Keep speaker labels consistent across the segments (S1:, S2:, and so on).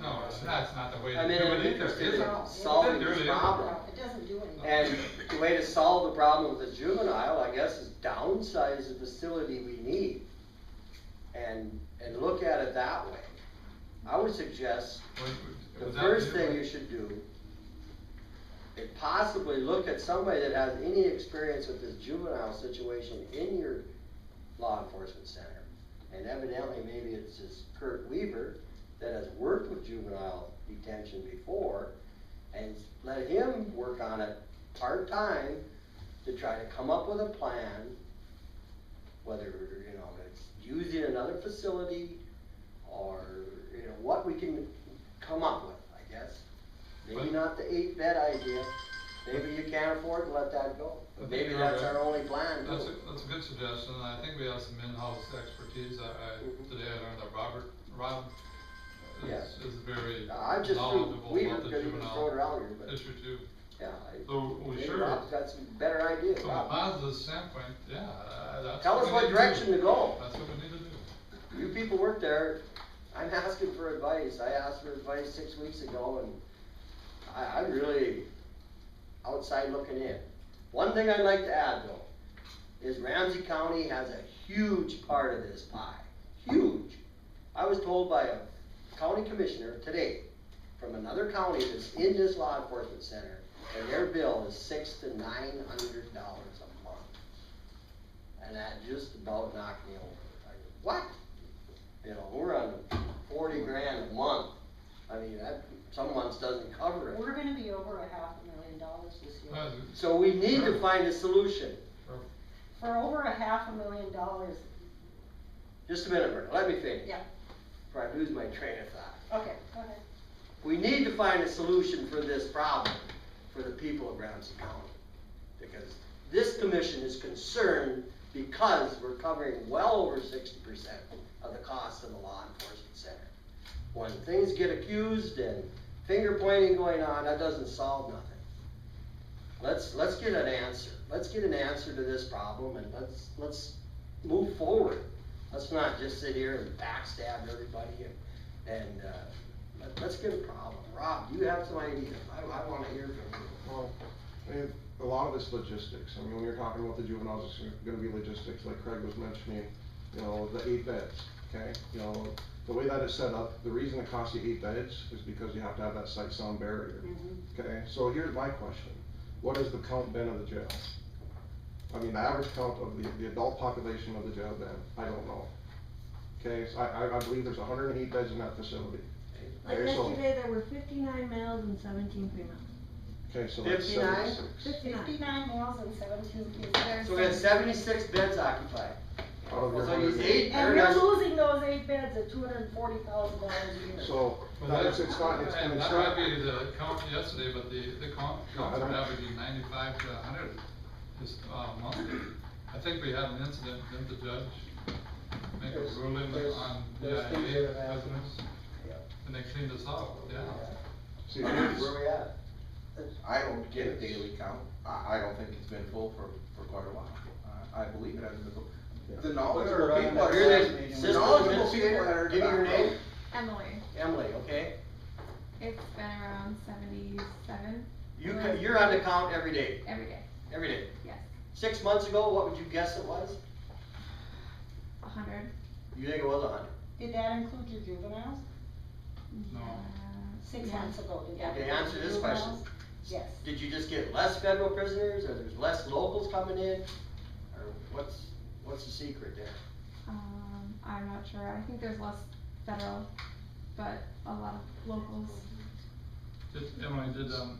S1: No, it's not, it's not the way
S2: I
S1: to do
S2: mean, I'm
S1: it either.
S2: interested in
S1: Isn't-
S2: solving
S1: there
S2: this
S1: it is.
S2: problem.
S3: It doesn't do anything.
S2: And the way to solve the problem with the juvenile, I guess, is downsize the facility we need and, and look at it that way. I would suggest
S1: Would- would-
S2: the
S1: would that
S2: first
S1: be-
S2: thing you should do is possibly look at somebody that has any experience with this juvenile situation in your law enforcement center. And evidently, maybe it's this Kurt Weaver that has worked with juvenile detention before and let him work on it part-time to try to come up with a plan, whether, you know, it's using another facility or, you know, what we can come up with, I guess. Maybe
S1: But-
S2: not the eight bed idea, maybe you can't afford to let that go,
S1: But
S2: maybe
S1: there
S2: that's
S1: are-
S2: our only plan.
S1: That's a,
S2: too.
S1: that's a good suggestion, and I think we have some in-house expertise, I, I,
S2: Mhm.
S1: today I learned that Robert, Rob is,
S2: Yeah.
S1: is very
S2: I just threw
S1: knowledgeable
S2: Weaver
S1: about the
S2: because he was thrown
S1: juvenile
S2: around here, but,
S1: issue too.
S2: yeah. I-
S1: So, we
S2: maybe
S1: sure-
S2: Rob's got some better ideas,
S1: From a
S2: Rob.
S1: positive standpoint, yeah, I- I- that's.
S2: Tell us
S1: we
S2: what
S1: need
S2: direction to go.
S1: That's what we need to do.
S2: You people work there, I'm asking for advice, I asked for advice six weeks ago, and I, I'm really outside looking in. One thing I'd like to add though, is Ramsey County has a huge part of this pie, huge. I was told by a county commissioner today, from another county that's in this law enforcement center, that their bill is six to nine hundred dollars a month. And that just about knocked me over. I go, What? You know, we're on forty grand a month. I mean, that, some months doesn't cover it.
S3: We're gonna be over a half a million dollars this year.
S1: That's a-
S2: So we need to find a solution.
S3: For over a half a million dollars,
S2: Just a minute, Bert, let me finish.
S3: Yeah.
S2: Before I lose my train of thought.
S3: okay, go ahead.
S2: We need to find a solution for this problem for the people of Ramsey County. Because this commission is concerned because we're covering well over sixty percent of the cost of the law enforcement center. When things get accused and finger pointing going on, that doesn't solve nothing. Let's, let's get an answer. Let's get an answer to this problem and let's, let's move forward. Let's not just sit here and backstab everybody and, and, uh, let- let's get a problem. Rob, you have some ideas. I, I wanna hear from you.
S4: Well, I mean, a lot of it's logistics, I mean, when you're talking about the juveniles, it's gonna be logistics, like Craig was mentioning, you know, the eight beds, okay? You know, the way that is set up, the reason it costs you eight beds is because you have to have that sight sound barrier, okay? So here's my question, what has the count been of the jail? I mean, the average count of the, the adult population of the jail been, I don't know. Okay, so I, I, I believe there's hundred and eight beds in that facility.
S5: Like
S4: Okay, so-
S5: yesterday, there were fifty-nine males and seventeen females.
S4: Okay, so that's
S2: 59?
S4: seventy-six.
S5: Fifty-nine.
S3: Fifty-nine males and seventeen females.
S2: So we had seventy-six beds occupied.
S4: Out of your
S2: So you
S4: 108.
S2: see,
S3: And
S2: there it
S3: we're
S2: is.
S3: losing those eight beds at two hundred and forty thousand dollars a year.
S4: So,
S1: Well,
S4: that
S1: that-
S4: is, it's not, it's, and
S1: And
S4: it's
S1: that
S4: not.
S1: might be the count yesterday, but the, the count,
S4: No, I
S1: counts are
S4: don't-
S1: averaging ninety-five to hundred this, uh, month. I think we had an incident, didn't the judge make a
S2: There's-
S1: ruling
S2: there's-
S1: on the
S2: there's things
S1: IA
S2: that have happened.
S1: residents?
S2: Yeah.
S1: And they cleaned us up, yeah.
S4: See,
S2: Where we at?
S6: I don't get a daily count, I, I don't think it's been full for, for quite a while, I, I believe it hasn't been full. The knowledgeable people are.
S2: You're the
S6: The
S2: system
S6: knowledgeable people that
S2: administrator.
S6: are.
S2: Give me your name.
S7: Emily,
S2: Emily, okay?
S7: it's been around seventy-seven
S2: You can, you're on the count every day,
S7: every day,
S2: every day.
S7: yes,
S2: Six months ago, what would you guess it was?
S7: a hundred.
S2: You think it was a hundred?
S3: Did that include your juveniles?
S1: No.
S3: Six months ago, did that?
S2: Okay, answer
S3: include
S2: this question.
S3: juveniles? Yes.
S2: Did you just get less federal prisoners, or there's less locals coming in? Or what's, what's the secret there?
S7: Um, I'm not sure, I think there's less federal, but a lot of locals.
S1: Did, Emily, did, um,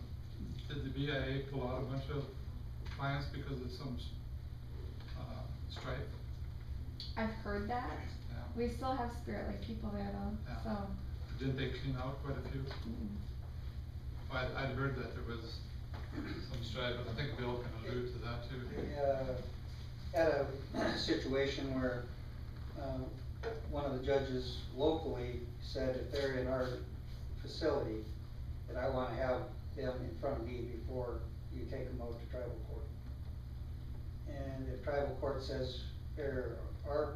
S1: did the BIA pull out a bunch of clients because of some, s- uh, strife?
S7: I've heard that,
S1: Yeah.
S7: we still have Spirit Lake people there though,
S1: Yeah.
S7: so,
S1: Didn't they clean out quite a few?
S7: mm,
S1: I, I'd heard that there was some strife, and I think Bill can allude to that too.
S8: uh, had a situation where, um, one of the judges locally said if they're in our facility, that I wanna have them in front of me before you take them out to tribal court. And if tribal court says they're our